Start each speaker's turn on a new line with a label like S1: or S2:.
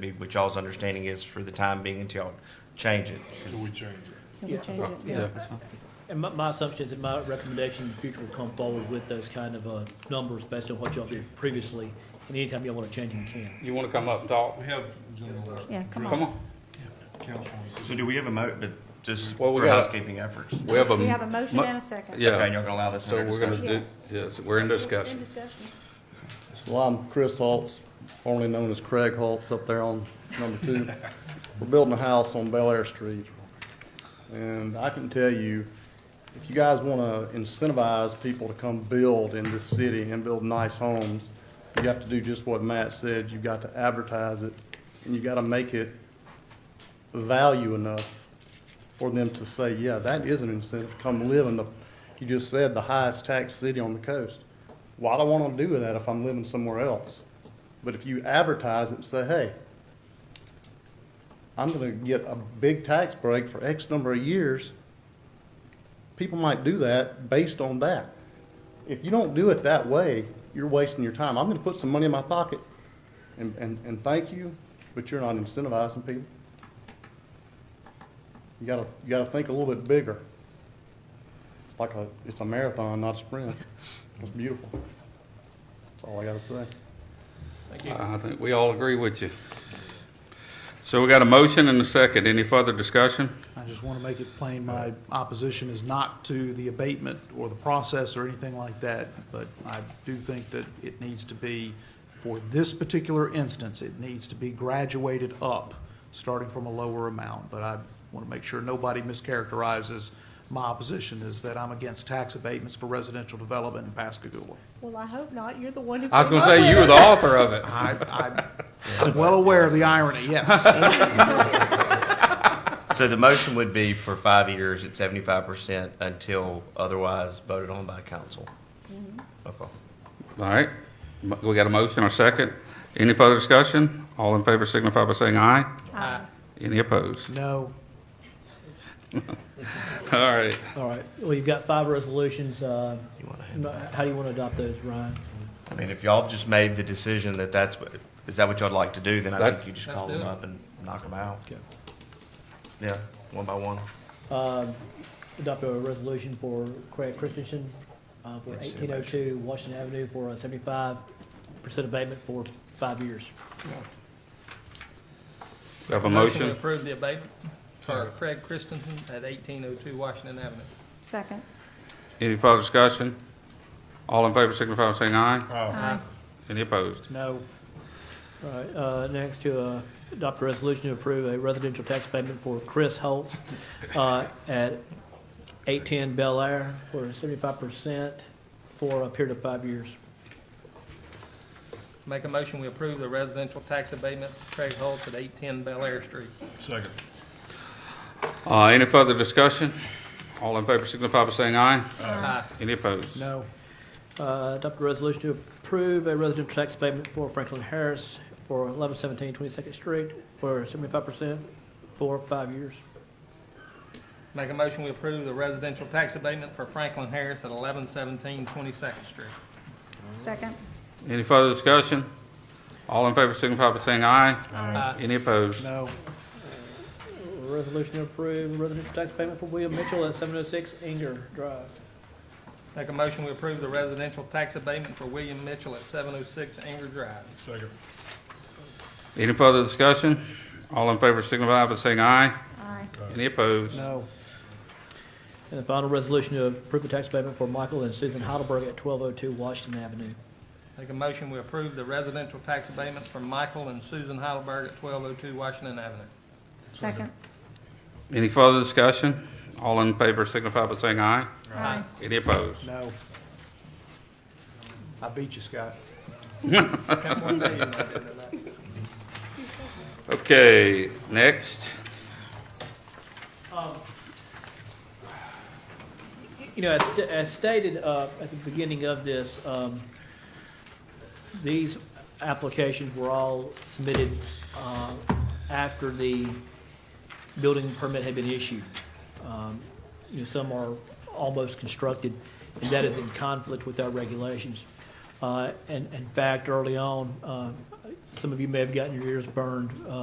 S1: be what y'all's understanding is for the time being until y'all change it. 'Cause-
S2: Till we change it.
S3: So we
S4: Yeah.
S3: change it,
S5: Yeah.
S3: yeah.
S4: And my, my assumption is that my recommendation in the future will come forward with those kind of, uh, numbers based on what y'all did previously. And anytime y'all wanna change them, you can.
S5: You want to come up, and talk?
S2: We have. general-
S3: Yeah, come
S5: Come on.
S2: Council wants to-
S1: So do we have a mo, but just
S5: Well, we
S1: for
S5: gotta-
S1: housekeeping efforts?
S5: We have a.
S3: We have a motion
S5: mo-
S3: and a second.
S1: Okay, and
S5: Yeah,
S1: y'all gonna allow this
S5: so
S1: under
S5: we're going
S1: discussion?
S5: to do, yes, we're in
S3: In
S5: discussion.
S3: discussion.
S6: So I'm Chris Holtz, formerly known as Craig Holtz, up there on number two. We're building a house on Bel Air Street. And I can tell you, if you guys want to incentivize people to come build in this city and build nice homes, you have to do just what Matt said. You've got to advertise it, and you got to make it value enough for them to say, yeah, that is an incentive, come live in the, you just said, the highest taxed city on the coast. Why do I want to do that if I'm living somewhere else? But if you advertise it and say, hey, I'm gonna get a big tax break for X number of years, people might do that based on that. If you don't do it that way, you're wasting your time. I'm gonna put some money in my pocket and, and, and thank you, but you're not incentivizing people. You gotta, you gotta think a little bit bigger. It's like a, it's a marathon, not a sprint. It's beautiful. That's all I gotta say.
S5: I think we all agree with you. So we got a motion and a second. Any further discussion?
S7: I just want to make it plain, my opposition is not to the abatement or the process or anything like that, but I do think that it needs to be, for this particular instance, it needs to be graduated up, starting from a lower amount. But I want to make sure nobody mischaracterizes my opposition is that I'm against tax abatements for residential development in Pascagoula.
S3: Well, I hope not. You're the one who.
S5: I was
S3: came
S5: going to
S3: up
S5: say, you
S3: with
S5: were the author of it.
S7: I, I'm- I'm well aware of the irony, yes.
S1: So the motion would be for five years at seventy-five percent until otherwise voted on by council. Okay.
S5: All right, Mo- we got a motion or second. Any further discussion? All in favor signify by saying aye. Aye. Any opposed?
S7: No,
S5: All right,
S4: All right, well, you've got five resolutions, uh, how do you wanna adopt those, Ryan?
S1: I mean, if y'all have just made the decision that that's, what is that what y'all'd like to do, then I
S5: That-
S1: think you just call them up and knock them out.
S4: Okay.
S1: Yeah, one by one.
S4: Um, adopt a resolution for Craig Christensen, uh, for eighteen oh two Washington Avenue for a seventy-five percent abatement for five years.
S5: we have a
S8: to
S5: motion.
S8: approve the abatement for Craig Christensen at 1802 Washington Avenue.
S3: Second.
S5: Any further discussion? All in favor signify by saying aye.
S3: Aye.
S5: Any opposed?
S7: no.
S4: All right, uh, next to uh, adopt a resolution to approve a residential tax payment for Chris Holtz uh, at 810 Bel Air for 75% for a period of five years.
S8: Make a motion, we approve the residential tax abatement for Craig Holtz at 810 Bel Air Street.
S2: Second.
S5: Uh, any further discussion? All in favor signify by saying aye.
S8: Aye.
S5: Any opposed?
S7: No.
S4: Uh, Adopt a resolution to approve a residential tax payment for Franklin Harris for 1117 22nd Street for 75% for five years.
S8: Make a motion, we approve the residential tax abatement for Franklin Harris at 1117 22nd Street.
S3: Second.
S5: Any further discussion? All in favor signify by saying aye.
S8: Aye.
S5: Any opposed?
S7: No.
S4: Uh, Resolution to approve residential tax payment for William Mitchell at 706 Inger Drive.
S8: Make a motion, we approve the residential tax abatement for William Mitchell at 706 Anger Drive.
S2: Second.
S5: Any further discussion? All in favor signify by saying aye.
S3: Aye.
S5: Any opposed?
S7: No.
S4: And the final resolution to approve a tax payment for Michael and Susan Heidelberg at 1202 Washington Avenue.
S8: Make a motion, we approve the residential tax abatement for Michael and Susan Heidelberg at 1202 Washington Avenue.
S3: Second.
S5: Any further discussion? All in favor signify by saying aye.
S3: Aye.
S5: Any opposed?
S7: No. I beat you, Scott.
S8: Come on, tell you what I did to that.
S5: Okay, next.
S4: Um, You know, as- as stated uh, at the beginning of this, um, these applications were all submitted uh, after the building permit had been issued. Um, You know, some are almost constructed, and that is in conflict with our regulations. Uh, And in fact, early on, uh, some of you may have gotten your ears burned, uh,